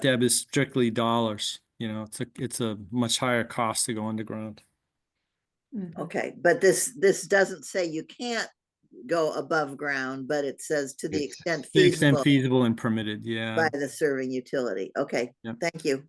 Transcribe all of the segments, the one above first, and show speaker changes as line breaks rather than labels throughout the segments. Deb is strictly dollars, you know, it's a, it's a much higher cost to go underground.
Okay, but this, this doesn't say you can't go above ground, but it says to the
It's-
extent
To the extent
feasible
feasible and permitted, yeah.
by the serving utility. Okay,
Yep.
thank you.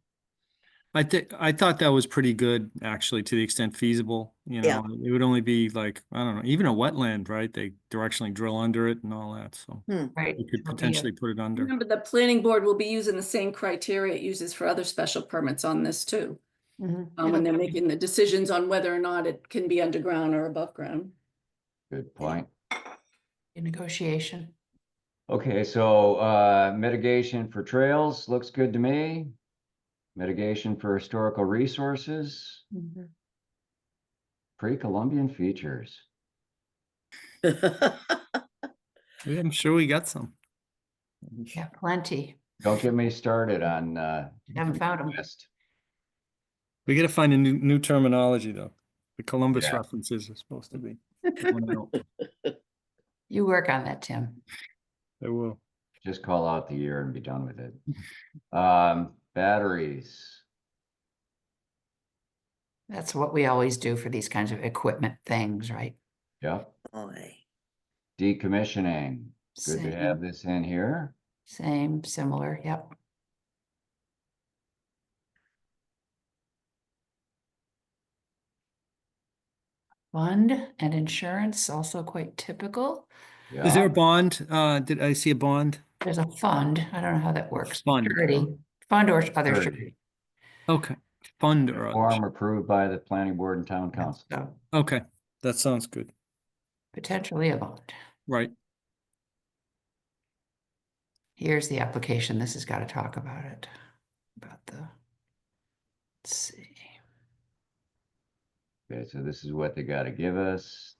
I think, I thought that was pretty good, actually, to the extent feasible, you
Yeah.
know, it would only be like, I don't know, even a wetland, right? They directionally drill under it and all that, so
Right.
you could potentially put it under.
Remember, the planning board will be using the same criteria it uses for other special permits on this too. Um, when they're making the decisions on whether or not it can be underground or above ground.
Good point.
Negotiation.
Okay, so uh, mitigation for trails looks good to me. Mitigation for historical resources, pre-Columbian features.
Yeah, I'm sure we got some.
Yeah, plenty.
Don't get me started on uh.
Haven't found 'em.
West.
We gotta find a new, new terminology, though. The Columbus
Yeah.
references are supposed to be. going out.
You work on that, Tim.
They will.
Just call out the year and be done with it. Um, batteries.
That's what we always do for these kinds of equipment things, right?
Yep.
Boy,
Decommissioning. Good to
Same,
have this in here.
Same, similar, yep. Fund and insurance, also quite typical.
Is there
Yeah.
a bond? Uh, did I see a bond?
There's a fund. I don't know how that works.
Fund.
Surety, fund or other
Surety.
surety.
Okay, fund or others.
Form approved by the planning board and town council.
So
Okay, that sounds good.
potentially a bond.
Right.
Here's the application. This has got to talk about it. About the. Let's see.
Okay, so this is what they gotta give us.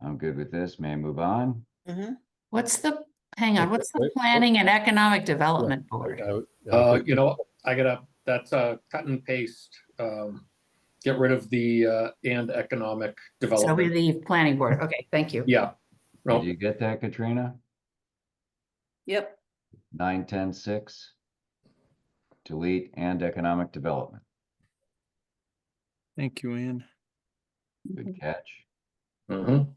I'm good with this, may I move on?
mhm.
What's the, hang on,
Okay,
what's the
wait, wait.
Planning and Economic Development Board?
I would- I would
Uh,
think-
you know, I gotta, that's a cut and paste. Um, get rid of the, uh, and economic
So we
development.
leave Planning Board. Okay, thank you.
Yeah.
Did
No,
you get that, Katrina?
Yep,
Nine, ten, six? Delete and economic development,
Thank you, Anne.
good catch.
mhm.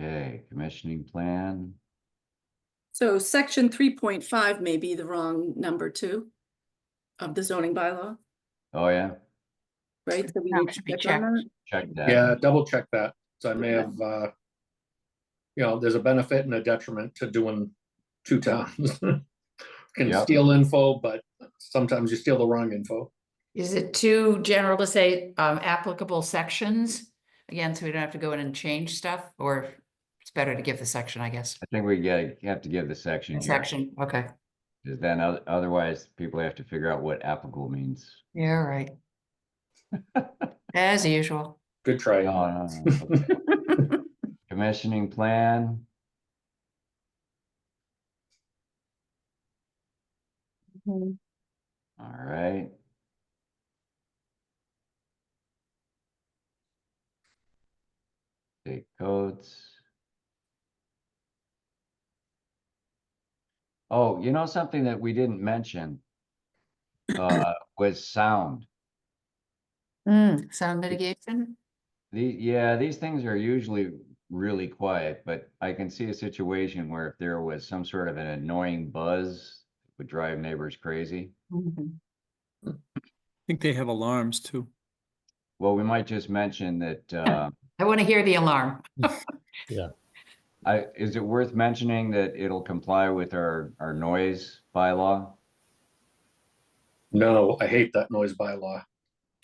Okay, commissioning plan,
so section three point five may be the wrong number two of the zoning bylaw,
oh yeah,
right? So we
That
need to
should be
check on
checked.
check that.
yeah, double check that. So I may
Yeah.
have, uh, you know, there's a benefit and a detriment to doing two towns. Can
Yep.
steal info, but sometimes you steal the wrong info.
Is it too general to say um, applicable sections? Again, so we don't have to go in and change stuff, or it's better to give the section, I guess.
I think we gotta, have to give the section here,
Section, okay.
'cause then oth- otherwise people have to figure out what applicable means.
Yeah, right. As usual.
Good try.
No, no, no, okay. Commissioning plan. All right. State codes. Oh, you know, something that we didn't mention, uh, was sound.
Mm, sound mitigation?
The, yeah, these things are usually really quiet, but I can see a situation where if there was some sort of an annoying buzz, it would drive neighbors crazy.
Mhm.
I think they have alarms too.
Well, we might just mention that, uh,
I want to hear the alarm.
I, is it worth mentioning that it'll comply with our, our noise bylaw?
No, I hate that noise bylaw.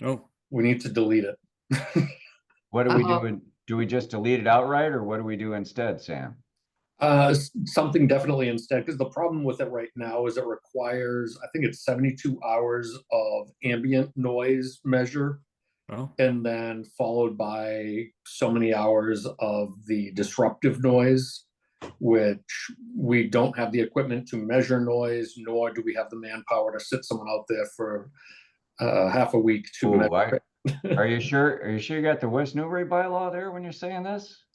Oh,
We need to delete it.
What do we
Uh-oh.
do? in- Do we just delete it outright or what do we do instead, Sam?
Uh, s- something definitely instead, because the problem with it right now is it requires, I think it's seventy-two hours of ambient noise measure.
oh,
And then followed by so many hours of the disruptive noise. Which we don't have the equipment to measure noise, nor do we have the manpower to sit someone out there for uh, half a week to
Ooh,
measure
I-
it.
Are you sure, are you sure you got the West Newbury bylaw there when you're saying this?